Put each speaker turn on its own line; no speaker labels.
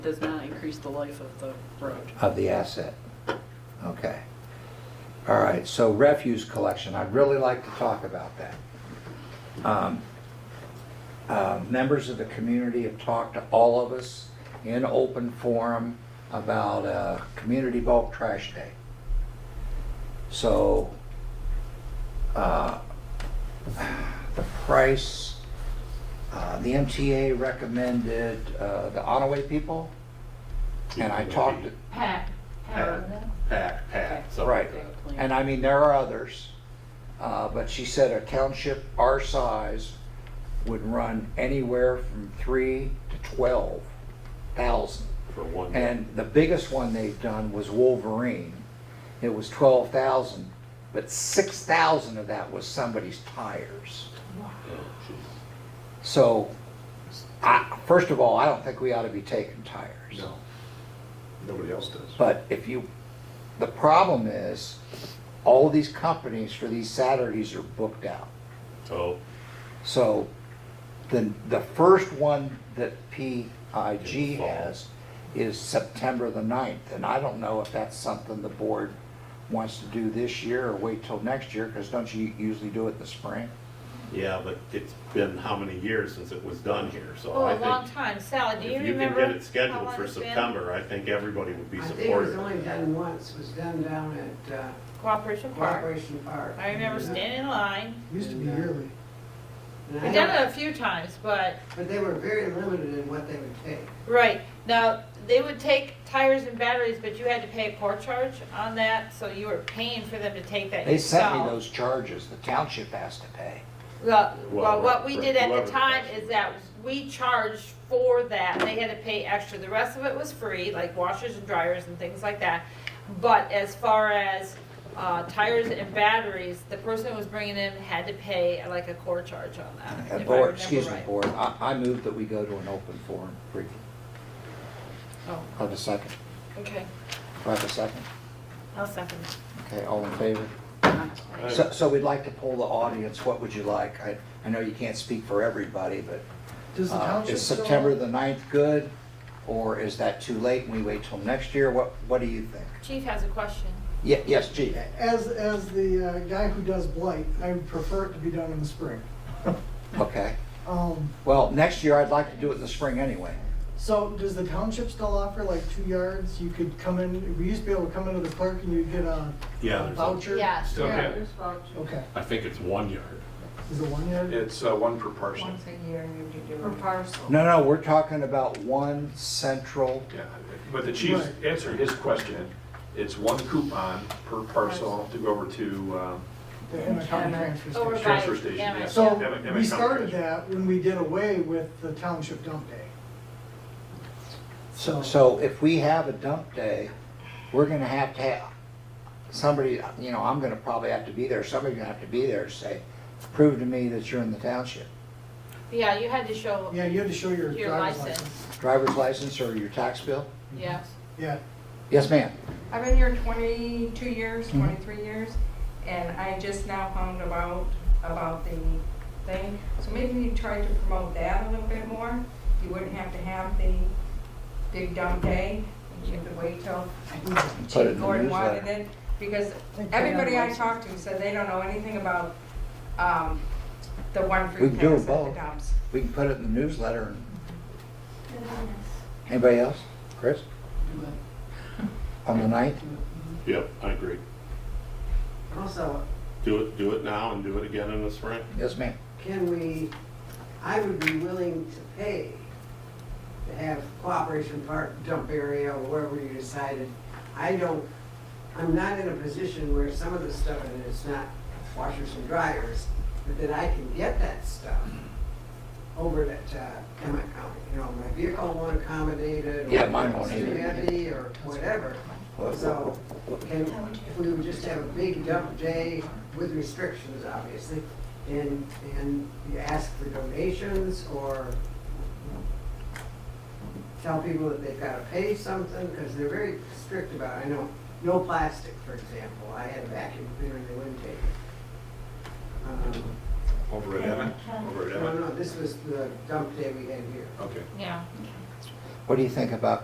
does not increase the life of the road.
of the asset. Okay. All right, so refuse collection, I'd really like to talk about that. Um, uh, Members of the community have talked to all of us in open forum about uh, Community Bulk Trash Day. So uh, the price, uh, the MTA recommended uh, the Onaway people, and I talked, to-
Pack.
Pack, pack, pack, something
Right,
like that.
and I mean, there are others, uh, but she said a township our size would run anywhere from three to twelve thousand.
for one.
And the biggest one they've done was Wolverine. It was twelve thousand, but six thousand of that was somebody's tires.
Oh, jeez.
So, I, first of all, I don't think we ought to be taking tires.
No, nobody else does.
But if you, the problem is, all these companies for these Saturdays are booked out.
Oh,
So the, the first one that PIG has is September the 9th. And I don't know if that's something the board wants to do this year or wait till next year, because don't you usually do it in the spring?
yeah, but it's been how many years since it was done here, so
Oh,
I
a long
think.
time. Sally, do you
If you can
remember?
get it
how
scheduled
long
for
it's been?
September, I think everybody would be
I think it was
supportive
only
of that.
done once, It was done down at uh,
Cooperation Park.
Corporation Park. uh,
I remember standing in line.
Used to be yearly.
And I
We've done
don't-
it a few times, but,
But they were very limited in what they would take.
right. Now, they would take tires and batteries, but you had to pay a port charge on that, so you were paying for them to take that
They sent me
yourself.
those charges, the township has to pay.
Well,
Well,
well, what we
right,
did at
whoever
the time
does.
is that we charged for that, they had to pay extra, the rest of it was free, like washers and dryers and things like that. But as far as, uh, tires and batteries, the person who was bringing in had to pay like a quarter charge on that,
And
if I
Board,
remember
excuse me,
right.
board, I, I move that we go to an open forum briefly.
Oh,
Have a second?
okay,
Do I have a second?
I'll second it.
Okay, all in favor?
Aye.
So, so we'd like to poll the audience, what would you like? I, I know you can't speak for everybody, but
Does the
uh,
township
is
still?
September the 9th good? Or is that too late and we wait till next year? What, what do you think?
Chief has a question.
Ye- Yes, Chief?
As, as the uh, guy who does blight, I would prefer it to be done in the spring.
Okay.
Um,
Well, next year I'd like to do it in the spring anyway.
so does the township still offer like two yards? You could come in, we used to be able to come into the clerk and you'd get a
Yeah,
a
there's a-
voucher?
Yes.
Still have it.
Okay,
I think it's one yard.
is it one yard?
It's uh, one per parcel.
a year you do
Per parcel.
No, no, we're talking about one central,
Yeah, But the chief
Right.
answered his question. It's one coupon per parcel to go over to, um,
The Emmett County Transfer Station.
Over by
Transfer station, yeah.
Emmett, yeah.
Emmett-
So
Emmett
we
County
started
Transfer.
that when we did away with the township dump day. So.
so if we have a dump day, we're gonna have to have somebody, you know, I'm gonna probably have to be there, somebody's gonna have to be there to say, prove to me that you're in the township.
Yeah, you had to show
Yeah, you had to show your
your
driver's
license,
license.
Driver's license or your tax bill?
yes.
Yeah.
Yes, ma'am.
I've been here 22 years,
Mhm.
23 years, and I just now found about, about the thing. So maybe you try to promote that a little bit more. You wouldn't have to have the big dump day. You could wait till
Put it in
Chief
the
Gordon wanted
newsletter.
it. Because
Think they
everybody
don't
I
like-
talked to said they don't know anything about um, the one
We
free
can do
pass at the
both.
dumps.
We can put it in the newsletter. and- Anybody else? Chris? On the ninth?
Yep, I agree.
Also,
Do it, do it now and do it again in the spring.
Yes, ma'am.
can we, I would be willing to pay to have Cooperation Park dump area or wherever you decided. I don't, I'm not in a position where some of the stuff in it is not washers and dryers, but that I can get that stuff over at uh, Emmett County. You know, my vehicle won't accommodate it. or
Yeah, mine won't either.
it's too heavy or whatever. So can, if we would just have a big dump day with restrictions, obviously, and, and you ask for donations or tell people that they've got to pay something, because they're very strict about, it. I know, no plastic, for example. I had a vacuum cleaner, they wouldn't take it. Um,
over at Emmett, over at
No,
Emmett.
no, this was the dump day we had here.
Okay.
Yeah.
What do you think about